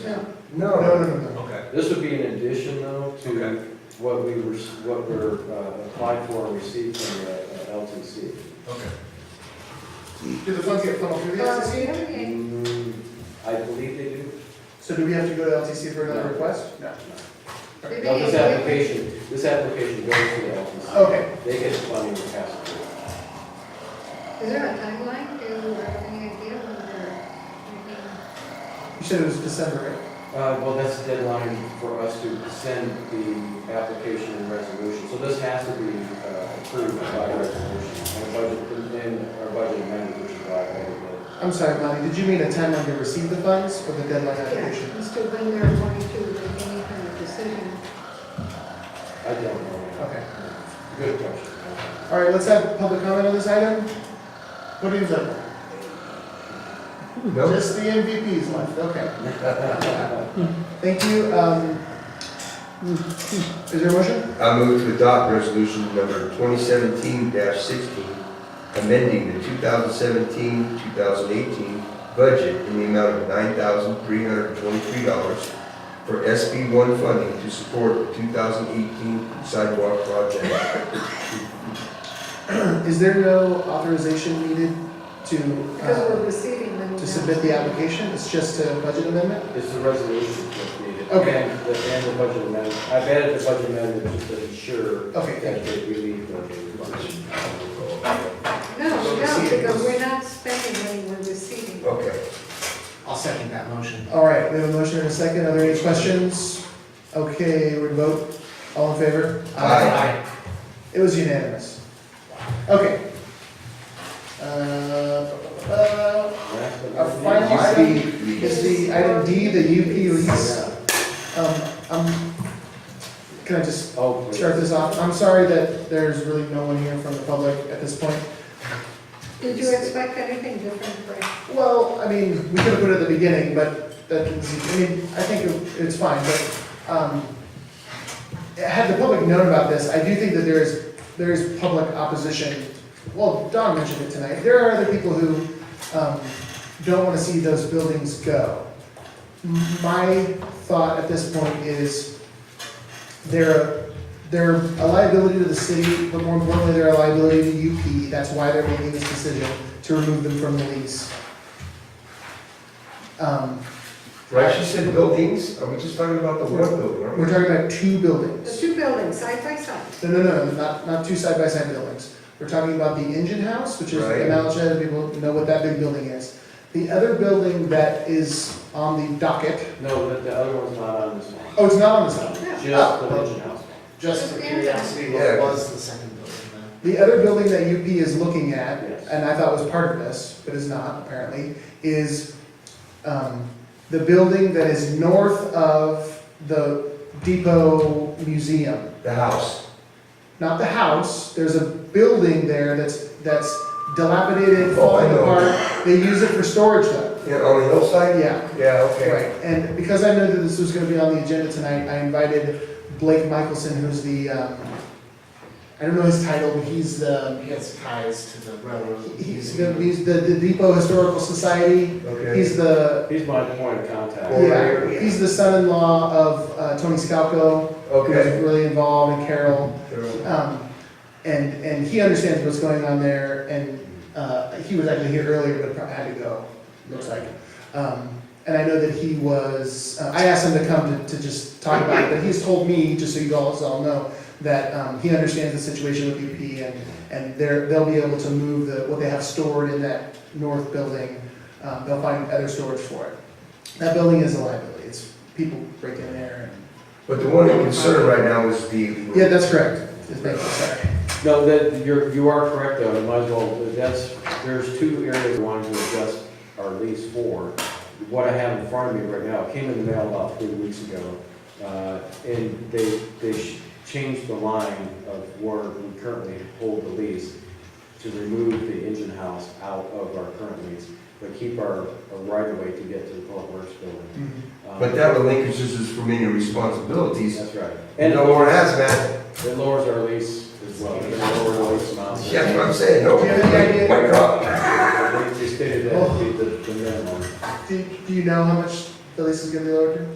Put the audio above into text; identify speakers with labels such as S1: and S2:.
S1: No, no, no, no.
S2: Okay,
S3: This would be an addition though
S2: Okay.
S3: to what we were, what we're uh, applied for and received from the uh, LTC.
S2: okay.
S1: Do the funds get funneled through the LCC?
S4: Okay.
S3: Mm, I believe they do.
S1: So do we have to go to LCC for another
S3: No.
S1: request? No.
S4: Did
S3: No, this
S4: they-
S3: application, this application goes to the LTC.
S1: Okay.
S3: They get funding to pass it. through.
S4: Is there a timeline to, or any idea when they're making?
S1: You said it was December, right?
S3: Uh, well, that's the deadline for us to send the application and resolution. So this has to be uh, approved by resolution and budget, and our budget amendment, which is why I added
S1: I'm sorry, Melanie, did you mean a timeline to receive the funds or the deadline
S4: Yeah,
S1: application?
S4: as to when they're going to make any kind of decision.
S3: that. I don't know.
S1: Okay.
S3: Good question.
S1: All right, let's have public comment on this item. What is it? Just the MVPs left, okay. Thank you. um, Is there a motion?
S5: I move to adopt resolution number 2017-16, amending the 2017-2018 budget in the amount of $9,323 for SB1 funding to support the 2018 sidewalk project.
S1: Is there no authorization needed to,
S4: Because we're
S1: uh,
S4: receiving them.
S1: to
S4: now.
S1: submit the application? It's just a budget amendment?
S3: It's the resolution that's needed.
S1: Okay.
S3: And the, and the budget amendment. I've added the budget amendment just to ensure
S1: Okay, thank
S3: that they relieve the funds.
S4: No, no, because we're not spending money, we're receiving.
S5: Okay.
S6: I'll second that motion.
S1: All right, we have a motion and a second. Are there any questions? Okay, we vote. All in favor?
S5: Aye.
S1: It was unanimous. Okay. Uh, bu- bu- bu- Our final item is the item D, the UP lease.
S3: Yeah.
S1: Um, um, can I just
S3: Oh, please.
S1: start this off? I'm sorry that there's really no one here from the public at this point.
S4: Did you expect anything different, Frank?
S1: Well, I mean, we could have put it at the beginning, but that didn't seem, I mean, I think it- it's fine, but, um, had the public known about this, I do think that there is, there is public opposition. Well, Don mentioned it tonight. There are other people who, um, don't want to see those buildings go. My thought at this point is they're, they're a liability to the city, but more importantly, they're a liability to UP. That's why they're making this decision to remove them from the lease. Um,
S5: Right, she said buildings, are we just talking about the one building, aren't we?
S1: We're talking about two
S4: The
S1: buildings.
S4: two buildings, side by side.
S1: No, no, no, not, not two side-by-side buildings. We're talking about the engine house, which is
S5: Right.
S1: in Alachua, people know what that big building is. The other building that is on the docket,
S3: No, the, the other one's not on this one.
S1: oh, it's not on this one,
S3: Just the budget house.
S6: Just for curiosity, what
S5: Yeah.
S6: was the second building
S1: The other building that UP is looking at,
S3: Yes.
S1: and I thought was part of this, but is not apparently, is um, the building that is north of the Depot Museum.
S5: The house.
S1: Not the house, there's a building there that's, that's dilapidated,
S5: Oh, I
S1: falling
S5: know.
S1: apart. They use it for storage though.
S5: Yeah, on the hillside?
S1: Yeah,
S5: Yeah, okay.
S1: right. And because I know that this was gonna be on the agenda tonight, I invited Blake Michelson, who's the, um, I don't know his title, but he's the
S6: there? He has ties to the railroad.
S1: He's the,
S6: museum.
S1: he's the, the Depot Historical Society.
S5: Okay.
S1: He's the,
S3: He's my point of contact.
S5: Or-
S1: yeah, he's the son-in-law of uh, Tony Scalco,
S5: Okay.
S1: who's really involved, and Carol. Um, and, and he understands what's going on there, and, uh, he was actually here earlier, but probably had to go, looks like. Um, and I know that he was, uh, I asked him to come to, to just talk about it, but he's told me, just so you all, so all know, that, um, he understands the situation with UP and, and they're, they'll be able to move the, what they have stored in that north building, um, they'll find other storage for it. That building is a liability, it's, people break in there and,
S5: But the one in concern right now is the.
S1: yeah, that's correct, Just make- sorry.
S3: No, that, you're, you are correct though, it might as well, that's, there's two areas we wanted to adjust our lease for. What I have in front of me right now, it came in the mail about three weeks ago, uh, and they, they sh- changed the line of where we currently hold the lease to remove the engine house out of our current lease, but keep our, our right of way to get to the public works building.
S1: Mhm.
S3: Um,
S5: But that relinquishes us from any responsibilities.
S3: That's right. And it
S5: No more
S3: lowers,
S5: hazmat.
S3: it lowers our lease as well, it lowers our lease amount.
S5: Yeah, that's what I'm saying, no.
S1: Do you have any idea?
S5: Why not?
S3: They stated that would be the, the minimum.
S1: Do, do you know how much the lease is gonna be lowered to?